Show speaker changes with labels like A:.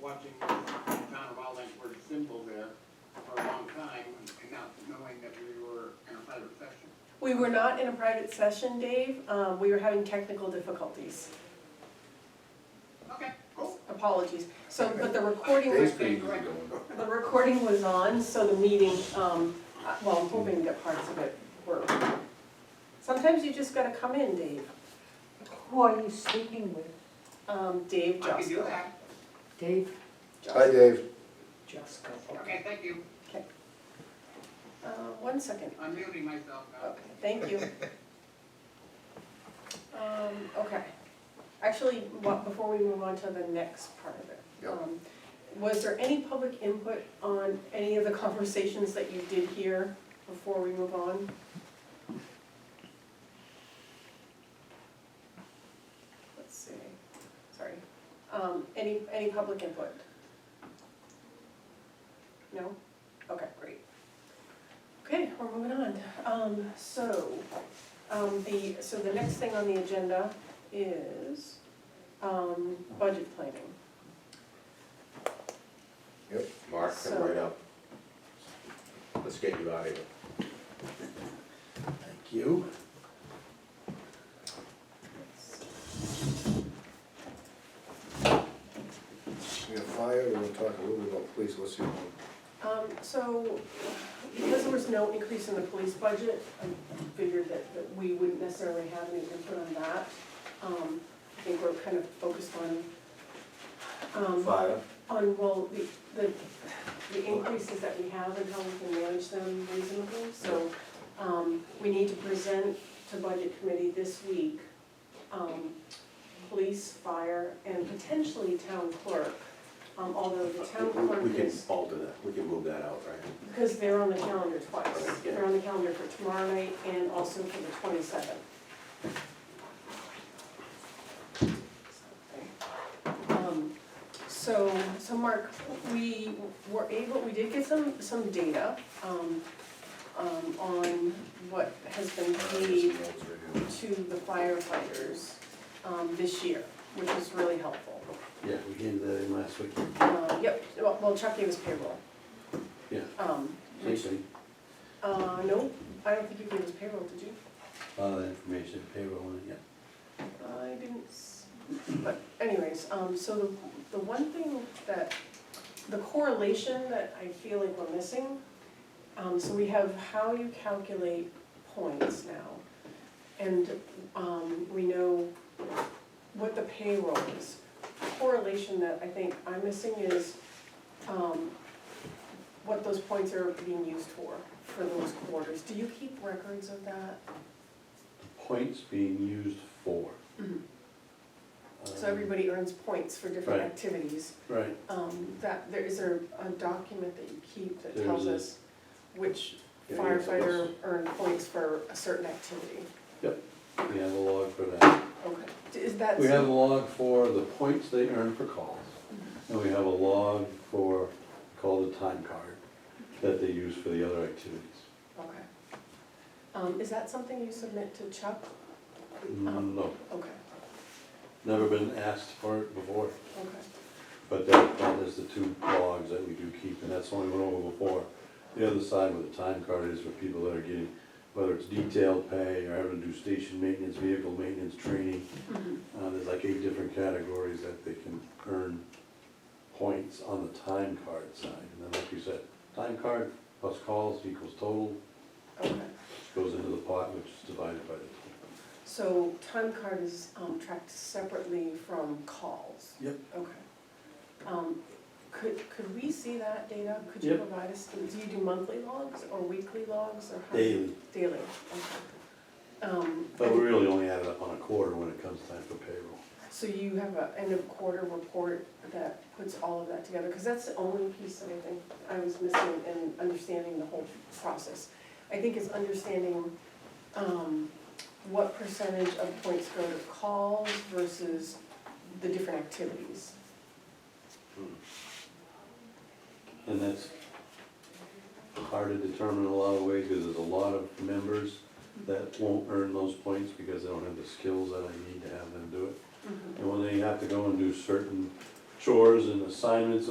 A: watching the town of Allen's were symbol there for a long time and not knowing that we were in a private session.
B: We were not in a private session, Dave. Um, we were having technical difficulties.
A: Okay, cool.
B: Apologies. So, but the recording was,
C: Dave's pretty easy going.
B: the recording was on, so the meeting, um, uh, well, I'm hoping that parts of it were. Sometimes you just gotta come in, Dave.
D: Who are you speaking with?
B: Um, Dave
A: I can do
B: Josco.
A: that.
D: Dave
C: Hi, Dave.
D: Jusko.
A: Okay, thank you.
B: Uh, one second.
A: I'm muting myself now.
B: Okay, thank you. Um, okay. Actually, wha- before we move on to the next part of it.
C: Yep.
B: um, Was there any public input on any of the conversations that you did hear before we move on? Let's see, sorry. Um, any, any public input? No? Okay, great. Okay, we're moving on. Um, so, um, the, so the next thing on the agenda is, um, budget planning.
C: Yep.
E: Mark,
B: So-
E: come right up. Let's get you out of here. Thank you.
C: We have fire, we're gonna talk a little bit about police, let's see. what-
B: Um, so, because there was no increase in the police budget, I figured that, that we wouldn't necessarily have any input on that. Um, I think we're kind of focused on, um,
E: Fire.
B: on, well, the, the, the increases that we have and how we can manage them reasonably. So, um, we need to present to budget committee this week, um, police, fire, and potentially town clerk. Um, although the town
E: We-
B: clerk
E: We can
B: is,
E: alter that, we can move that out, right?
B: because they're on the calendar twice.
E: Right, yeah.
B: They're on the calendar for tomorrow night and also for the twenty-seventh. Um, So, so Mark, we were able, we did get some, some data, um, um, on what has been paid
C: Some notes right
B: to
C: here.
B: the firefighters, um, this year, which is really helpful.
E: Yeah, we did that in last week.
B: Uh, yep, well, well, Chuck gave us payroll.
E: Yeah.
B: Um,
E: Same thing,
B: uh, no, I don't think you gave us payroll, did you?
E: all that information, payroll, and yeah.
B: I didn't, s- but anyways, um, so the, the one thing that, the correlation that I feel like we're missing, um, so we have how you calculate points now. And, um, we know what the payroll is. Correlation that I think I'm missing is, um, what those points are being used for, for those quarters. Do you keep records of that?
E: Points being used for.
B: Mhm. So
E: Um,
B: everybody earns points for different
E: Right.
B: activities.
E: Right,
B: Um, that, there, is there a document that you keep that
E: There's
B: tells
E: a-
B: us which
E: Yeah, there's a
B: firefighter
E: list.
B: earned points for a certain activity?
E: we have a log for that.
B: Okay, D- is that?
E: We have a log for the points they earn for calls.
B: Mm-hmm.
E: And we have a log for, called a time card, that they use for the other activities.
B: Okay. Um, is that something you submit to Chuck? Um,
E: No,
B: Okay,
E: never been asked for it before,
B: okay.
E: but that, that is the two logs that we do keep, and that's the one we went over before. The other side where the time card is for people that are getting, whether it's detailed pay or having to do station maintenance, vehicle maintenance, training.
B: Mhm.
E: Uh, there's like eight different categories that they can earn points on the time card side. And then like you said, time card plus calls equals total,
B: Okay,
E: which goes into the pot, which is divided by the total.
B: so time card is, um, tracked separately from calls?
E: Yep.
B: Okay. Um, could, could we see that data? Could you
E: Yep.
B: provide us, do you do monthly logs or weekly logs or how?
E: Daily.
B: Daily, okay. Um,
E: But we
B: and
E: really only add it up on a quarter when it comes time for payroll.
B: so you have a end of quarter report that puts all of that together, because that's the only piece that I think I was missing in understanding the whole process. I think is understanding, um, what percentage of points go to calls versus the different activities.
E: And that's hard to determine in a lot of ways, because there's a lot of members that won't earn those points because they don't have the skills that I need to have them do it. And when they have to go and do certain chores and assignments